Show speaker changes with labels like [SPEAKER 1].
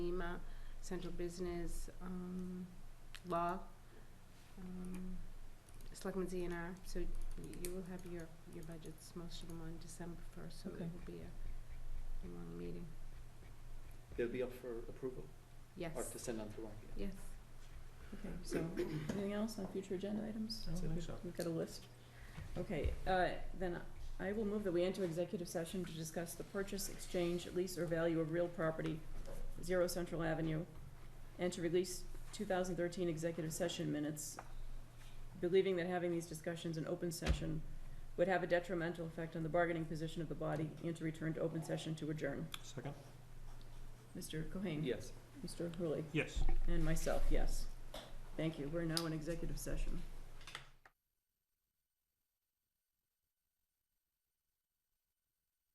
[SPEAKER 1] central business, um, law, um, Selectmen Z and R, so y- you will have your, your budgets, most of them on December first, so it
[SPEAKER 2] Okay.
[SPEAKER 1] will be a, a long meeting.
[SPEAKER 3] They'll be up for approval
[SPEAKER 1] Yes,
[SPEAKER 3] or to send on through. RFP.
[SPEAKER 1] yes.
[SPEAKER 2] Okay, so, anything else on future agenda items?
[SPEAKER 4] I don't think so.
[SPEAKER 2] We've got a list. Okay, uh, then I will move that we enter executive session to discuss the purchase, exchange, lease, or value of real property, Zero Central Avenue, and to release two thousand thirteen executive session minutes, believing that having these discussions in open session would have a detrimental effect on the bargaining position of the body, and to return to open session to adjourn.
[SPEAKER 4] Second?
[SPEAKER 2] Mr. Cohen?
[SPEAKER 3] Yes.
[SPEAKER 2] Mr. Hurley?
[SPEAKER 4] Yes.
[SPEAKER 2] And myself, yes. Thank you. We're now in executive session.